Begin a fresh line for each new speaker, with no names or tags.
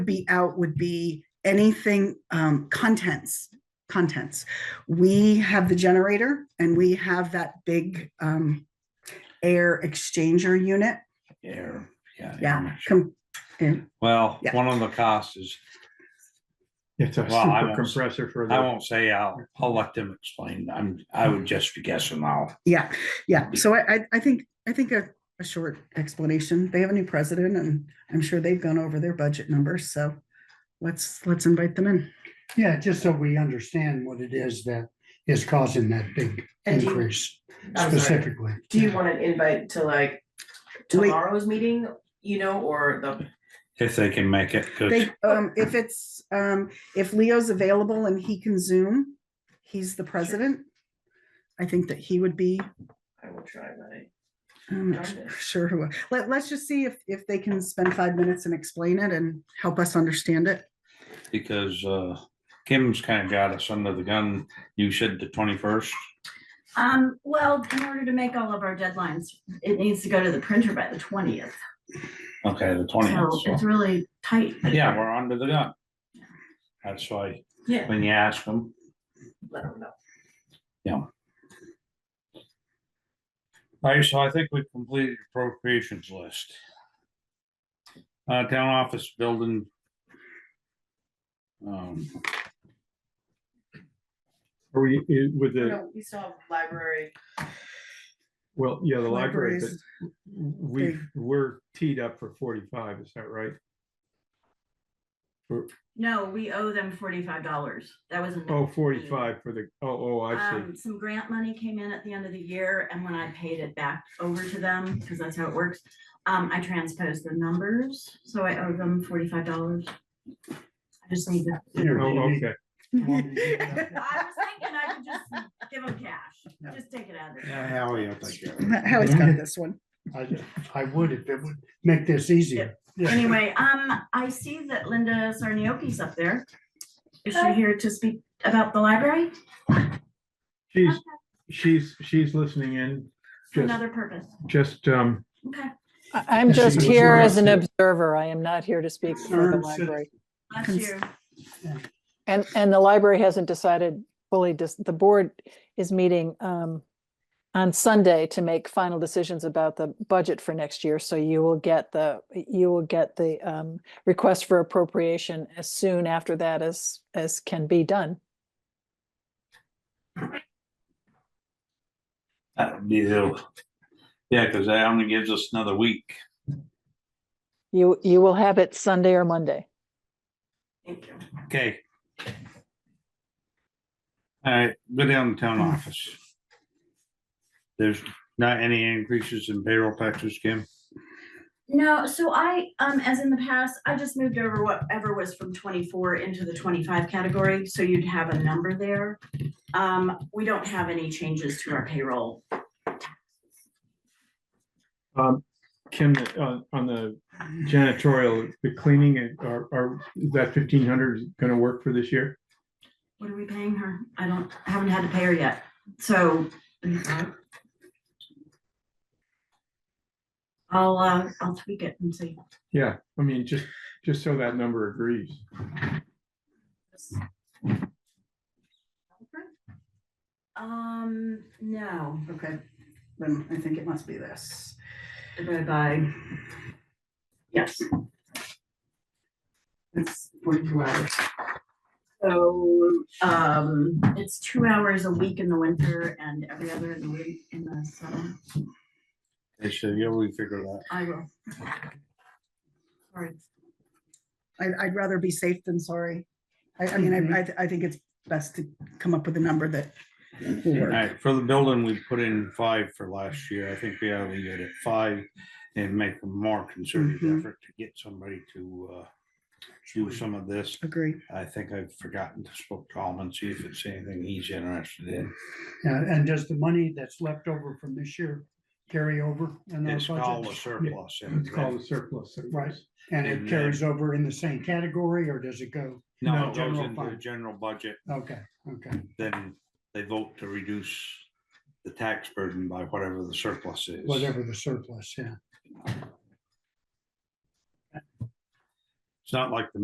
be out would be anything, um, contents, contents. We have the generator and we have that big, um, air exchanger unit.
Air, yeah.
Yeah.
air.
com-
Well,
Yeah.
one of the costs is,
It's a
Well, I
super
won't-
compressor for
I
the,
won't say, I'll, I'll let them explain. I'm, I
Mm.
would just be guessing now.
Yeah, yeah. So I, I, I think, I think a, a short explanation. They have a new president and I'm sure they've gone over their budget numbers. So let's, let's invite them in.
Yeah, just so we understand what it is that is causing that big
And do you-
increase
I'm sorry.
specifically.
Do you want an invite to like
Wait.
tomorrow's meeting, you know, or the,
If they can make it, 'cause
They, um, if it's, um, if Leo's available and he can Zoom, he's the president. I think that he would be,
I will try my.
I'm not
Got it.
sure who, let, let's just see if, if they can spend five minutes and explain it and help us understand it.
because, uh, Kim's kind of got us under the gun. You said the twenty-first.
Um, well, in order to make all of our deadlines, it needs to go to the printer by the twentieth.
Okay,
Oh,
the
So
twentieth.
it's really tight.
Yeah, we're under the gun. That's why,
Yeah.
when you ask them,
Let them know.
all right, so I think we've completed appropriations list. Uh, town office building. Um,
are we, i- with the,
No, we still have library.
well, yeah, the library, but
Libraries,
we,
big.
we're teed up for forty-five, is that right?
No, we owe them forty-five dollars. That was. another
Oh,
fee.
45 for the, oh, oh, I see.
Um, some grant money came in at the end of the year and when I paid it back over to them, because that's how it works, um, I transposed the numbers, so I owe them forty-five dollars. I just need to.
Oh, okay.
I was thinking I could just give them cash, just take it out of there.
Howie, I
Howie's got this one.
I would if it would make this easier.
Anyway, um, I see that Linda Sarniocchi's up there. Is she here to speak about the library?
She's, she's, she's listening in,
For
just,
Another purpose.
just, um,
Okay.
I- I'm
Yes, she
just
was
here as an
arrested.
observer. I am not here to speak for the
Concerned citizen.
library.
Bless
Cons-
you.
And, and the library hasn't decided fully, dis- the board is meeting um, on Sunday to make final decisions about the budget for next year. So you will get the, you will get the um, request for appropriation as soon after that as, as can be done.
that would be the, yeah, because that only gives us another week.
You, you will have it Sunday or Monday.
Thank you.
Okay. All right, go down to town office. There's not any increases in payroll taxes, Kim?
No, so I, um, as in the past, I just moved over whatever was from twenty-four into the twenty-five category, so you'd have a number there. Um, we don't have any changes to our payroll.
um, Kim, on, on the janitorial, the cleaning, and- are, are, is that fifteen hundred gonna work for this year?
What are we paying her? I don't, I haven't had to pay her yet, so. I'll, uh, I'll tweak it and see.
Yeah, I mean, just, just so that number agrees.
Um, no,
Okay, then I think it must be this.
divided by. Yes,
It's forty-two hours.
so, um, it's two hours a week in the winter and every other in the week in the summer.
They said, yeah, we figured that.
I will. Sorry.
I, I'd rather be safe than sorry. I, I mean, I, I, th- I think it's best to come up with a number that will
All
work.
right, for the building, we put in five for last year. I think we ought to leave it at five and make a more concerted
Mhm.
effort to get somebody to uh do some of this.
Agree.
I think I've forgotten to spoke to him and see if it's anything he's interested in.
And Uh, and does the money that's left over from this year carry over in our
It's called a
budget?
surplus. and
It's called a surplus. so-
Right. And
And
it carries over in the same category or does it go?
No, it goes
general
into the
fund.
general budget
Okay, okay.
then they vote to reduce the tax burden by whatever the surplus is.
Whatever the surplus, yeah.
It's not like the